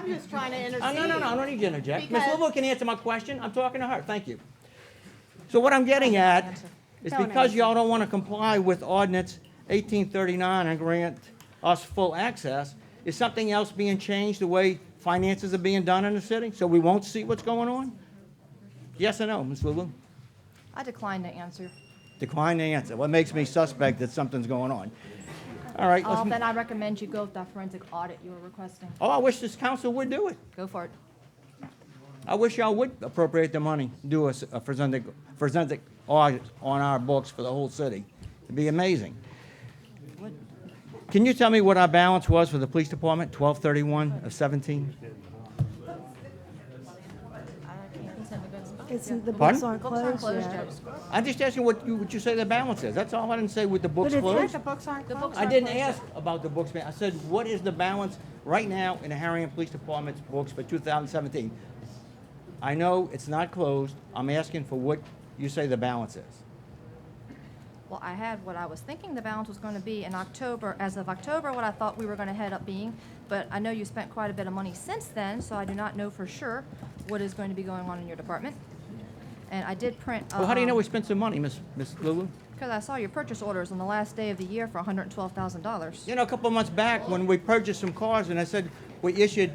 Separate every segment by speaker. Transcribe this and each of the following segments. Speaker 1: just trying to intercede.
Speaker 2: Oh, no, no, no, I don't need to interject. Ms.
Speaker 1: Because-
Speaker 2: Louisville can answer my question. I'm talking to her. Thank you. So what I'm getting at is
Speaker 1: Don't
Speaker 2: because
Speaker 1: answer.
Speaker 2: y'all don't want to comply with ordinance 1839 and grant us full access, is something else being changed the way finances are being done in the city? So we won't see what's going on? Yes or no, Ms. Louisville?
Speaker 3: I decline to answer.
Speaker 2: Decline to answer. What makes me suspect that something's going on? All right,
Speaker 3: Uh,
Speaker 2: let's,
Speaker 3: Then
Speaker 2: m-
Speaker 3: I recommend you go with that forensic audit you were requesting.
Speaker 2: oh, I wish this council would do it.
Speaker 3: Go for it.
Speaker 2: I wish y'all would appropriate the money, uh, do a s- a forensic, forensic audit on our books for the whole city. It'd be amazing. Can you tell me what our balance was for the police department, twelve thirty-one of seventeen?
Speaker 4: It's, the
Speaker 2: Pardon?
Speaker 4: books aren't closed yet.
Speaker 2: I'm just asking what you, what you say the balance is. That's all. I didn't say with the books
Speaker 4: But it's-
Speaker 2: closed.
Speaker 1: The books aren't closed.
Speaker 2: I didn't ask about the books, man. I said, what is the balance right now in the Harahan Police Department's books for 2017? I know it's not closed. I'm asking for what you say the balance is.
Speaker 3: Well, I had what I was thinking the balance was going to be in October, as of October, what I thought we were going to head up being. But I know you spent quite a bit of money since then, so I do not know for sure what is going to be going on in your department. And I did print.
Speaker 2: Well, how do you know
Speaker 3: um,
Speaker 2: we spent some money, Miss Miss Lulu?
Speaker 3: Because I saw your purchase orders on the last day of the year for $112,000.
Speaker 2: You know, a couple of months back when we purchased some cars, and I said we issued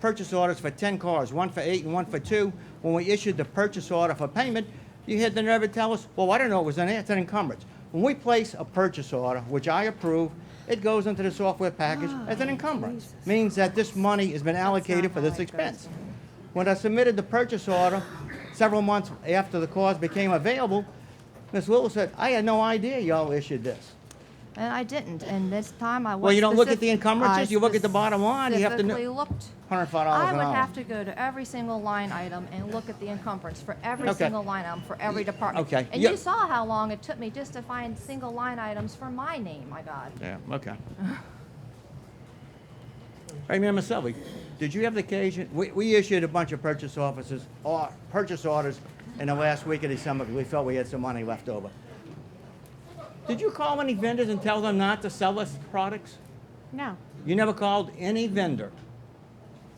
Speaker 2: purchase orders for 10 cars, one for eight and one for two. When we issued the purchase order for payment, you had the nerve to tell us, well, I don't know, it was an, it's an encumbrance. When we place a purchase order, which I approve, it goes into the software package
Speaker 3: Ah,
Speaker 2: as an encumbrance. Means that this money has been allocated for
Speaker 3: how
Speaker 2: this
Speaker 3: it
Speaker 2: expense.
Speaker 3: goes.
Speaker 2: When I submitted the purchase order several months after the cars became available, Ms. Lewis said, I had no idea y'all issued this.
Speaker 3: And I didn't, and this time I was.
Speaker 2: Well, you don't look at
Speaker 3: specif-
Speaker 2: the encumbrances,
Speaker 3: I
Speaker 2: you look at the bottom line, you have to kn-
Speaker 3: specifically looked.
Speaker 2: $105 an
Speaker 3: I would
Speaker 2: hour.
Speaker 3: have to go to every single line item and look at the encumbrance for every
Speaker 2: Okay.
Speaker 3: single line item, for every department.
Speaker 2: okay.
Speaker 3: And
Speaker 2: You-
Speaker 3: you saw how long it took me just to find single line items for my name, my God.
Speaker 2: Yeah, okay. Hey, Mayor Maselli, did you have the occasion, we, we issued a bunch of purchase offices, or purchase orders in the last week of December, because we felt we had some money left over. Did you call any vendors and tell them not to sell us products?
Speaker 1: No,
Speaker 2: You never called any vendor,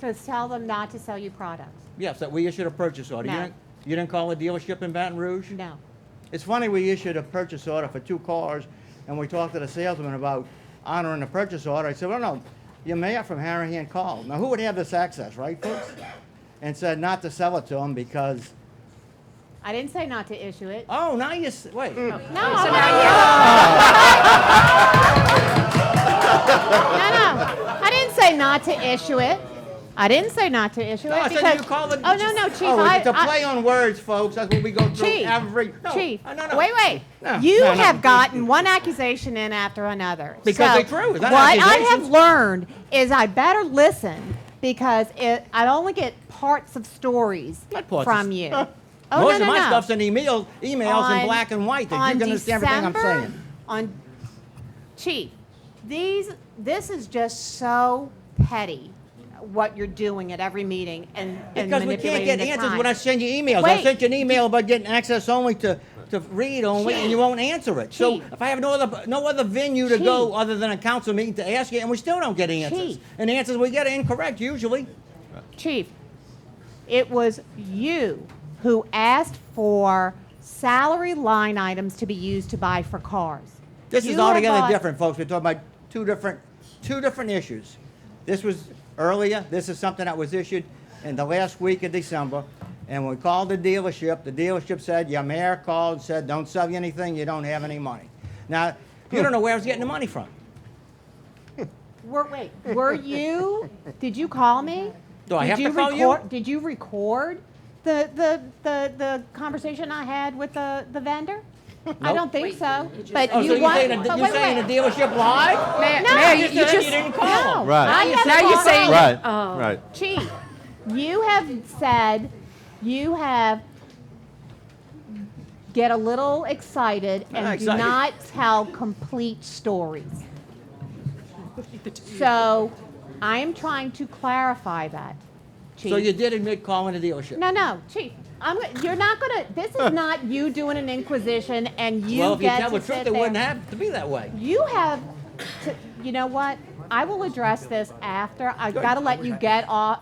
Speaker 1: to tell them not to sell you products.
Speaker 2: yes, that we issued a purchase order. You
Speaker 1: No.
Speaker 2: didn't- You didn't call a dealership in Baton Rouge?
Speaker 1: No.
Speaker 2: It's funny, we issued a purchase order for two cars, and we talked to the salesman about honoring the purchase order. I said, well, no, your mayor from Harahan called. Now, who would have this access, right, folks? And said not to sell it to him because,
Speaker 1: I didn't say not to issue it.
Speaker 2: oh, now you, s- wait.
Speaker 1: No, I'm not No, no, I didn't say not to issue it. I didn't say not to issue it
Speaker 2: No, I
Speaker 1: because.
Speaker 2: said you call it.
Speaker 1: Oh, no, no, chief,
Speaker 2: Oh,
Speaker 1: I,
Speaker 2: it's a play
Speaker 1: I,
Speaker 2: on words, folks. That's what we go through
Speaker 1: chief,
Speaker 2: every. no,
Speaker 1: chief,
Speaker 2: oh, no, no.
Speaker 1: wait,
Speaker 2: No,
Speaker 1: wait. You
Speaker 2: no, no.
Speaker 1: have gotten one accusation in after another.
Speaker 2: Because
Speaker 1: So
Speaker 2: they're true. Is that
Speaker 1: What I
Speaker 2: accusations?
Speaker 1: have learned is I better listen because it, I only get parts of stories
Speaker 2: Not parts of
Speaker 1: from
Speaker 2: s-
Speaker 1: you. Oh,
Speaker 2: Most
Speaker 1: no,
Speaker 2: of
Speaker 1: no,
Speaker 2: my
Speaker 1: no.
Speaker 2: stuff's in email, emails in
Speaker 1: on-
Speaker 2: black and white that you
Speaker 1: on
Speaker 2: can understand everything I'm
Speaker 1: December-
Speaker 2: saying.
Speaker 1: On Chief, these this is just so petty what you're doing at every meeting and, and
Speaker 2: Because we can't
Speaker 1: manipulating
Speaker 2: get
Speaker 1: the
Speaker 2: answers
Speaker 1: time.
Speaker 2: when I send you emails. I
Speaker 1: Wait.
Speaker 2: sent you an email about getting access only to, to read only, and you
Speaker 1: Chief.
Speaker 2: won't answer it. So
Speaker 1: Chief.
Speaker 2: if I have no other, no other venue to go
Speaker 1: Chief.
Speaker 2: other than a council meeting to ask you, and we still don't get answers.
Speaker 1: Chief.
Speaker 2: And the answers we get are incorrect usually.
Speaker 1: Chief, it was you who asked for salary line items to be used to buy for cars.
Speaker 2: This is
Speaker 1: You have
Speaker 2: altogether
Speaker 1: bought-
Speaker 2: different, folks. We're talking about two different, two different issues. This was earlier, this is something that was issued in the last week of December. And we called the dealership, the dealership said, your mayor called, and said, don't sell you anything, you don't have any money. Now, you don't know where I was getting the money from.
Speaker 1: Were, wait, were you? Did you call me?
Speaker 2: Do I
Speaker 1: did
Speaker 2: have to
Speaker 1: you
Speaker 2: call you?
Speaker 1: record, Did you record the, the the the conversation I had with the the vendor? I
Speaker 2: Nope.
Speaker 1: don't think so. but
Speaker 2: Oh,
Speaker 1: you
Speaker 2: so you're
Speaker 1: want?
Speaker 2: saying, the-
Speaker 1: but
Speaker 2: you're
Speaker 1: wait,
Speaker 2: saying
Speaker 1: wait.
Speaker 2: the dealership lied?
Speaker 5: Mayor,
Speaker 1: No,
Speaker 5: Mayor,
Speaker 1: you
Speaker 5: you, you
Speaker 2: said
Speaker 5: just
Speaker 2: you didn't
Speaker 1: No,
Speaker 2: call.
Speaker 5: Right.
Speaker 1: I haven't
Speaker 5: now you're
Speaker 1: called
Speaker 5: saying
Speaker 1: him.
Speaker 5: that-
Speaker 6: Right,
Speaker 5: Oh.
Speaker 6: right.
Speaker 1: Chief, you have said you have get a little excited and
Speaker 2: Not excited.
Speaker 1: do not tell complete stories. So I am trying to clarify that, Chief.
Speaker 2: So you did admit calling the dealership?
Speaker 1: no, no, Chief. I'm, go- you're not gonna. This is not you doing an inquisition and you
Speaker 2: Well, if you
Speaker 1: get
Speaker 2: tell
Speaker 1: to
Speaker 2: the truth,
Speaker 1: sit
Speaker 2: it
Speaker 1: there.
Speaker 2: wouldn't have to be that way.
Speaker 1: You have, to, you know what? I will address this after. I've got to let you get off.